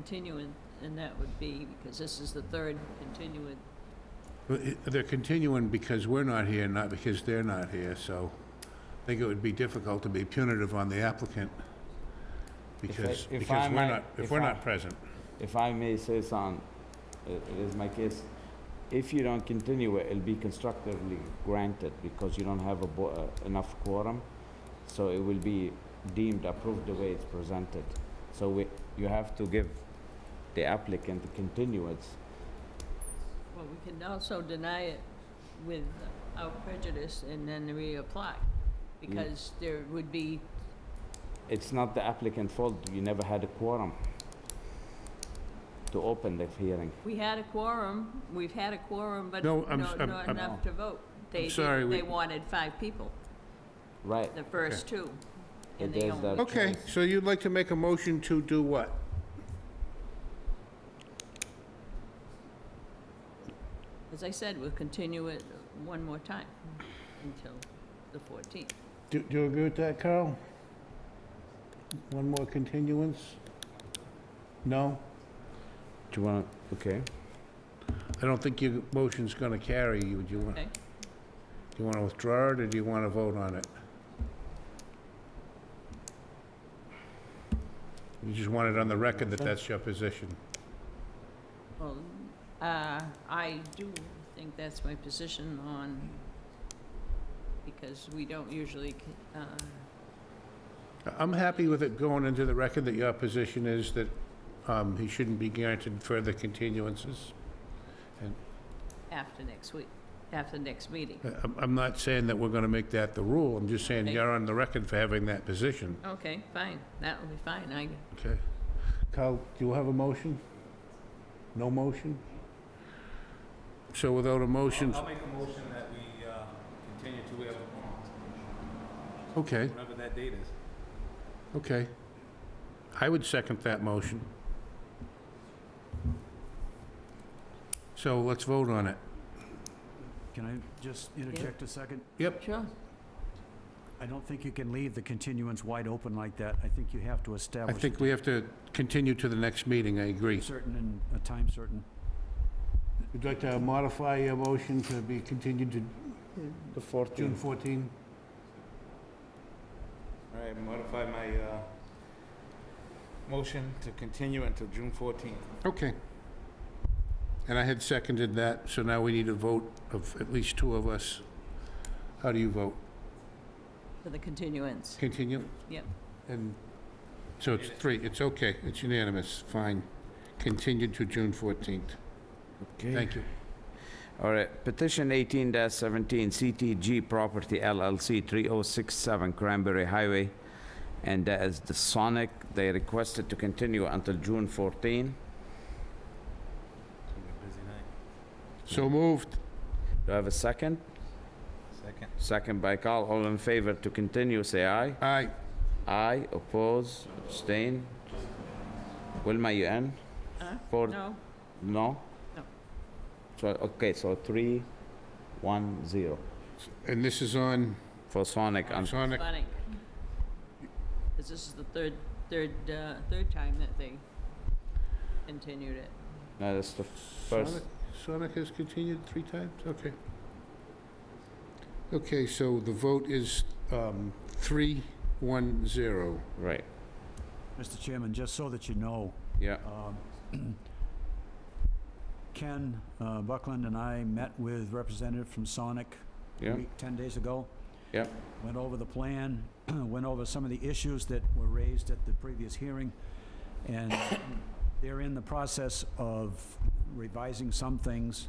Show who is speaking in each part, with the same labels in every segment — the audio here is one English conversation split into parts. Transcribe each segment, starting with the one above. Speaker 1: continuing, and that would be, because this is the third continuing.
Speaker 2: Well, it- They're continuing because we're not here, not because they're not here, so I think it would be difficult to be punitive on the applicant
Speaker 3: If I-
Speaker 2: because,
Speaker 3: if I
Speaker 2: because we're
Speaker 3: might-
Speaker 2: not, if
Speaker 3: if
Speaker 2: we're
Speaker 3: I-
Speaker 2: not present.
Speaker 3: If I may say some, it it is my case, if you don't continue it, it'll be constructively granted because you don't have a, bo- uh, enough quorum. So it will be deemed approved the way it's presented. So we, you have to give the applicant the continuance.
Speaker 1: Well, we can also deny it without prejudice and then reapply, because there would be,
Speaker 3: It's not the applicant's fault, you never had a quorum to open the hearing.
Speaker 1: we had a quorum, we've had a quorum, but
Speaker 2: No,
Speaker 1: no-
Speaker 2: I'm s- I'm-
Speaker 1: not
Speaker 2: I'm-
Speaker 1: enough to vote. They did-
Speaker 2: sorry, we-
Speaker 1: They wanted five people,
Speaker 3: Right,
Speaker 1: the first two, and
Speaker 3: But
Speaker 1: they
Speaker 3: there's
Speaker 1: only,
Speaker 3: that-
Speaker 2: Okay, so you'd like to make a motion to do what?
Speaker 1: as I said, we'll continue it one more time until the 14th.
Speaker 2: Do do you agree with that, Carl? One more continuance? No?
Speaker 3: do you wanna, okay?
Speaker 2: I don't think your motion's gonna carry you. Do you want, do
Speaker 1: Okay.
Speaker 2: you wanna withdraw it, or do you wanna vote on it? You just want it on the record that that's your position.
Speaker 1: Well, uh, I do think that's my position on, because we don't usually, uh,
Speaker 2: I'm happy with it going into the record that your position is that um, he shouldn't be granted further continuances.
Speaker 1: after next week, after next meeting.
Speaker 2: I- I'm- I'm not saying that we're going to make that the rule, I'm just saying
Speaker 1: Okay.
Speaker 2: you're on the record for having that position.
Speaker 1: Okay, fine, that'll be fine, I,
Speaker 2: Okay. Carl, do you have a motion? No motion? So without a motion,
Speaker 4: I'll make a motion that we uh, continue to whatever,
Speaker 2: okay,
Speaker 4: whenever that date is.
Speaker 2: okay. I would second that motion. So let's vote on it.
Speaker 5: Can I just interject a second?
Speaker 2: Yep,
Speaker 1: sure,
Speaker 5: I don't think you can leave the continuance wide open like that. I think you have to
Speaker 2: I
Speaker 5: establish
Speaker 2: think we have to continue to the next meeting, I agree.
Speaker 5: certain and a time certain.
Speaker 2: Would you like to modify your motion to be continued to
Speaker 3: The
Speaker 2: June
Speaker 3: 14th.
Speaker 2: 14?
Speaker 4: All right, modify my uh, motion to continue until June 14th.
Speaker 2: Okay. And I had seconded that, so now we need a vote of at least two of us. How do you vote?
Speaker 1: for the continuance.
Speaker 2: Continue?
Speaker 1: Yep.
Speaker 2: And, so it's three, it's okay, it's unanimous, fine. Continued to June 14th. Thank you.
Speaker 3: All right, petition eighteen seventeen, CTG Property LLC, three oh six seven Cranberry Highway. And that is the Sonic, they requested to continue until June fourteen.
Speaker 4: It's gonna be a busy night.
Speaker 2: So moved.
Speaker 3: Do I have a second?
Speaker 4: Second.
Speaker 3: Second by Carl, all in favor to continue, say aye.
Speaker 2: Aye.
Speaker 3: Aye, oppose, abstain. Wilma, you in?
Speaker 1: Huh?
Speaker 3: Four,
Speaker 1: No,
Speaker 3: no?
Speaker 1: No.
Speaker 3: So, okay, so three, one, zero,
Speaker 2: And this is on
Speaker 3: for Sonic, un-
Speaker 2: Sonic.
Speaker 1: funny. Because this is the third, third, uh, third time that they continued it.
Speaker 3: no, that's the first.
Speaker 2: Sonic, Sonic has continued three times, okay. Okay, so the vote is um, three, one, zero.
Speaker 3: Right,
Speaker 5: Mr. Chairman, just so that you know,
Speaker 3: yeah,
Speaker 5: um, Ken uh, Buckland and I met with representative from Sonic a
Speaker 3: yeah,
Speaker 5: week, 10 days ago.
Speaker 3: Yep.
Speaker 5: Went over the plan, went over some of the issues that were raised at the previous hearing, and they're in the process of revising some things,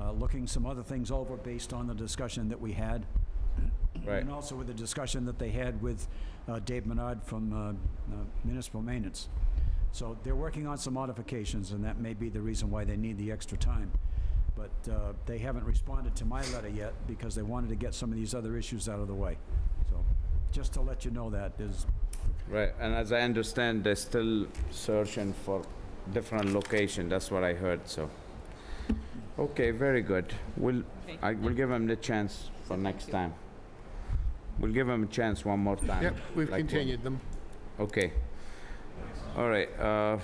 Speaker 5: uh, looking some other things over based on the discussion that we had.
Speaker 3: right,
Speaker 5: And also with the discussion that they had with uh, Dave Menard from uh, uh, Municipal Maintenance. So they're working on some modifications, and that may be the reason why they need the extra time. But uh, they haven't responded to my letter yet because they wanted to get some of these other issues out of the way. So just to let you know that is,
Speaker 3: right. And as I understand, they're still searching for different location, that's what I heard, so. Okay, very good. We'll,
Speaker 1: Okay.
Speaker 3: I will give him the chance for next
Speaker 1: you.
Speaker 3: time. We'll give him a chance one more time.
Speaker 2: Yep, we've
Speaker 3: like what-
Speaker 2: continued them.
Speaker 3: Okay. All right, uh,